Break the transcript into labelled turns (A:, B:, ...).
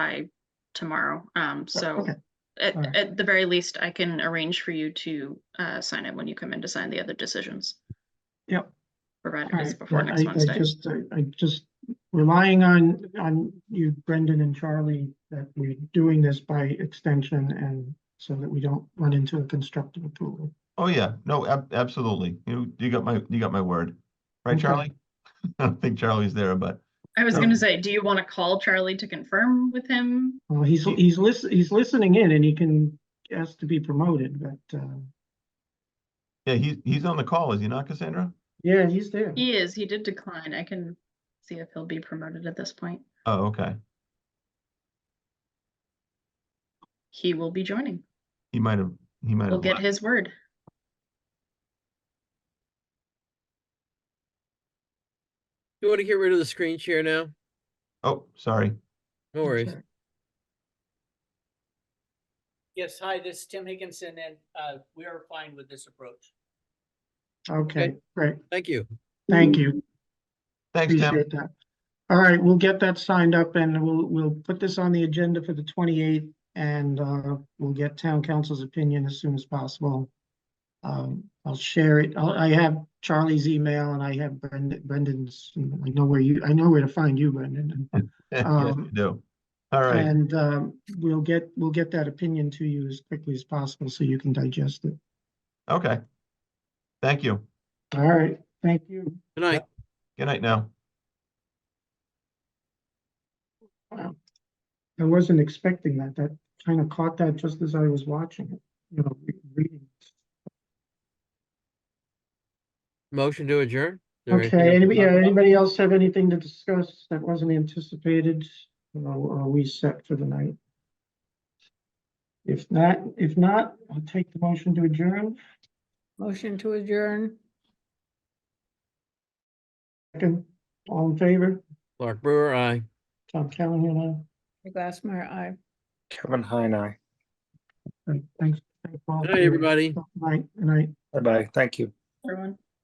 A: by tomorrow. Um, so
B: Oh, okay.
A: at,
B: All right.
A: at the very least, I can arrange for you to, uh, sign it when you come in to sign the other decisions,
B: Yep.
A: provided
B: All
A: it's
B: right.
A: before
B: Yeah,
A: next
B: I- I
A: Wednesday.
B: just, I- I just relying on, on you Brendan and Charlie, that we're doing this by extension and so that we don't run into a constructive approval.
C: Oh, yeah, no, ab- absolutely. You, you got my, you got my word. Right,
B: Okay.
C: Charlie? I don't think Charlie's there, but
A: I was gonna
C: Okay.
A: say, do you want to call Charlie to confirm with him?
B: Well, he's, he's lis- he's listening in and he can ask to be promoted, but, uh,
C: yeah, he's, he's on the call, is he not, Cassandra?
B: yeah, he's there.
A: He is, he did decline. I can see if he'll be promoted at this point.
C: Oh, okay.
A: He will be joining.
C: He might have, he might
A: We'll
C: have.
A: get
C: left.
A: his word.
D: You want to get rid of the screen share now?
C: Oh, sorry.
D: No worries.
E: Yes, hi, this is Tim Higginson, and uh, we are fine with this approach.
B: Okay,
D: Okay.
B: great.
D: Thank you.
B: Thank
A: Mm-hmm.
B: you.
C: Thanks, Tim.
B: Appreciate that. All right, we'll get that signed up and we'll, we'll put this on the agenda for the twenty-eighth and, uh, we'll get town council's opinion as soon as possible. Um, I'll share it. I'll- I have Charlie's email and I have Brend- Brendan's, I know where you, I know where to find you, Brendan.
C: Yes, you
B: um,
C: do. All right,
B: And, um, we'll get, we'll get that opinion to you as quickly as possible so you can digest it.
C: okay. Thank you.
B: All right, thank you.
D: Good night.
C: Good night now.
B: I wasn't expecting that. That kind of caught that just as I was watching it, you know, re- reading.
D: Motion to adjourn? Is there anything else
B: Okay,
D: to
B: anybody,
D: talk
B: yeah,
D: about?
B: anybody else have anything to discuss that wasn't anticipated? Or are we set for the night? If not, if not, I'll take the motion to adjourn.
F: Motion to adjourn.
B: Second, all in favor?
D: Clark Brewer, aye.
B: Tom Callahan, aye.
F: Glassmeyer, aye.
G: Kevin Heine. aye.
B: All right, Thanks. thanks all
D: Good
B: for
D: night,
B: your-
D: everybody.
B: Night, night.
G: Bye-bye. Thank you.
A: Everyone?